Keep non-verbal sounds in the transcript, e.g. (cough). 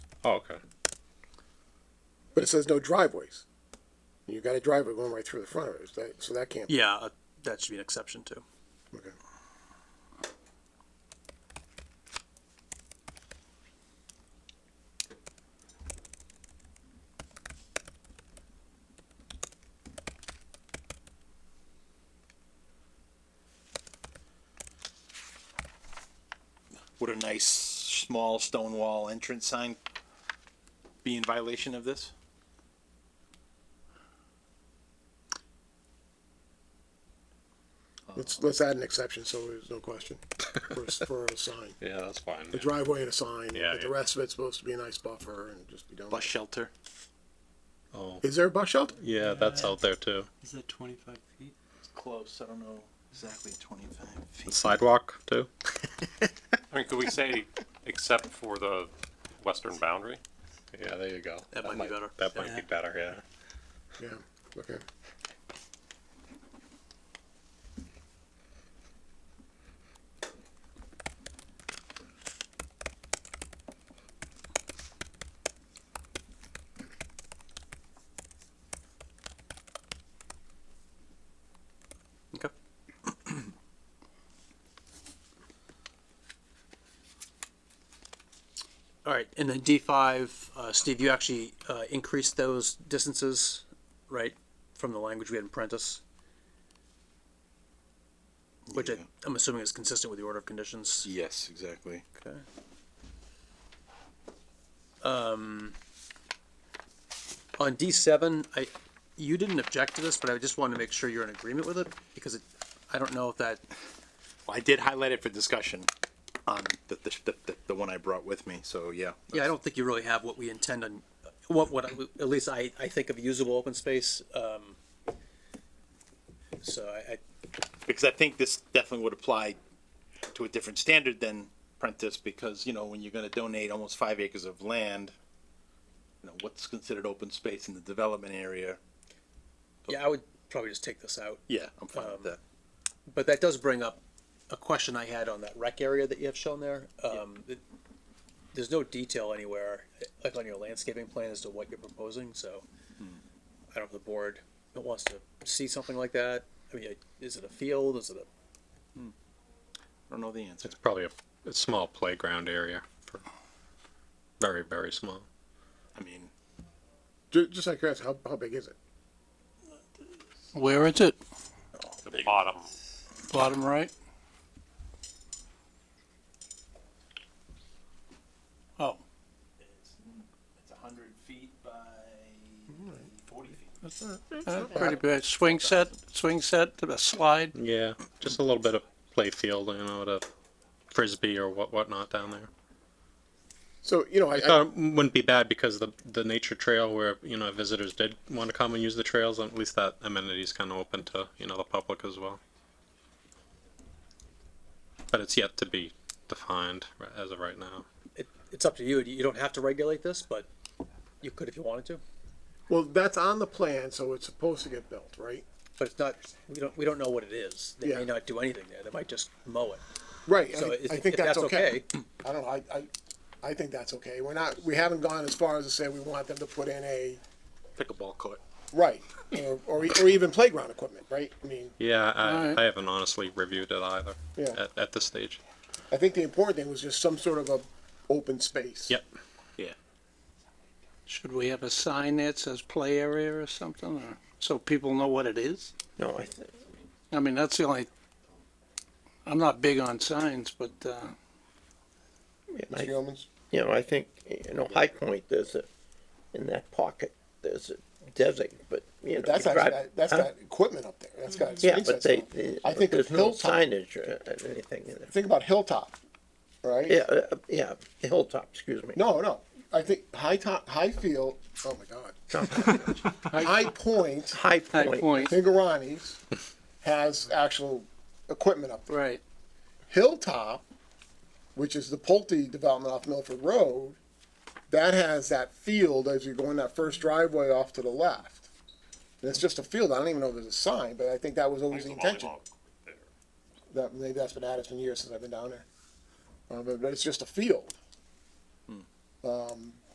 Oh, okay. but it says no driveways. You got a driveway going right through the front of it, is that- so that can't. be Yeah, uh, that should be an exception too. okay. Would a nice, small stone wall entrance sign be in violation of this? Let's, let's add an exception, so there's no (laughs) question, for, a s- for a sign. Yeah, that's fine. The driveway and a sign, Yeah, but the yeah. rest of it's supposed to be a nice buffer and just be done. Bus shelter? Oh, Is there a bus shelter? yeah, that's out there too. Is that twenty-five feet? It's close, I don't know exactly twenty-five The feet. sidewalk too. I mean, could we say except for the western boundary? Yeah, there you go. That might be better. That might Yeah. be better. Yeah. Yeah, okay. Okay. All right, and then D five, uh, Steve, you actually, uh, increased those distances, right, from the language we had in Prentice? Which I, Yeah. I'm assuming is consistent with the order of conditions. Yes, exactly. Okay. Um, on D seven, I, you didn't object to this, but I just wanted to make sure you're in agreement with it, because it, I don't know if that, Well, I did highlight it for discussion on the, the, the, the- the one I brought with me, so yeah. yeah, I don't think you really have what we intend on, what, what, I- at least I, I think of usable open space, um. So I, I, Because I think this definitely would apply to a different standard than Prentice, because, you know, when you're gonna donate almost five acres of land, you know, what's considered open space in the development area? yeah, I would probably just take this out, Yeah, I'm fine with that. but that does bring up a question I had on that rec area that you have shown there. Um, it- there's no detail anywhere, like on your landscaping plan as to what you're proposing, so. I don't know if the board wants to see something like that. I mean, is it a field? Is it a, I don't know the answer. It's probably a, a small playground area for very very small. I mean, Ju- Just like curiosity, how, how big is it? Where is it? The bottom, Bottom right? Oh, it's a hundred feet by forty feet. That's not, that's Uh, pretty big. Swing set, swing set, a slide. Yeah, just a little bit of playfield, you know, to frisbee or what whatnot down there. So, you know, I I, I, Uh, thought it wouldn't be bad because the the nature trail where you know visitors did want to come and use the trails, at least that amenity's kind of open to you know the public as well. But it's yet to be defined ri- as of right now. it, it's up to you. You don't have to regulate this, but you could if you wanted to. well, that's on the plan, so it's supposed to get built, right? But it's not, we don't, we don't know what it is. They Yeah. may not do anything there. They might just mow it. Right, So I, if I if think that's that's okay. okay, I don't know, I, I, I think that's okay. We're not, we haven't gone as far as to say we want them to put in a, Pickleball court. right, or, or, e- or even playground equipment, right? I mean, Yeah, I, Alright. I haven't honestly reviewed it either Yeah. at, at this stage. I think the important thing was just some sort of a open space. Yep. Yeah. Should we have a sign that says play area or something, or, so people know what it is? No, I think, I mean, that's the only, I'm not big on signs, but, uh, Mr. Yeomans? you know, I think, you know, High Point, there's a, in that pocket, there's a desert, but, you know. That's actually, you uh, drive- got- that's huh? got equipment up there, that's got. Yeah, swing but sets they, on it. they- I think of there's no Hilltop, signage or or anything in there. think about Hilltop, right? Yeah, uh, yeah, Hilltop, excuse me. No, no. I think High Top, High Field. Oh my God. High Point, High high Point, point, Pingarani's has actual equipment up there. right. Hilltop, which is the Pulte development off Milford Road, that has that field as you're going that first driveway off to the left. And it's just a field. I don't even know if there's a sign, but I think that was always there's the a intention. volleyball there. That maybe that's been added. It's been years since I've been down there. Uh, but, but it's just a field. Um,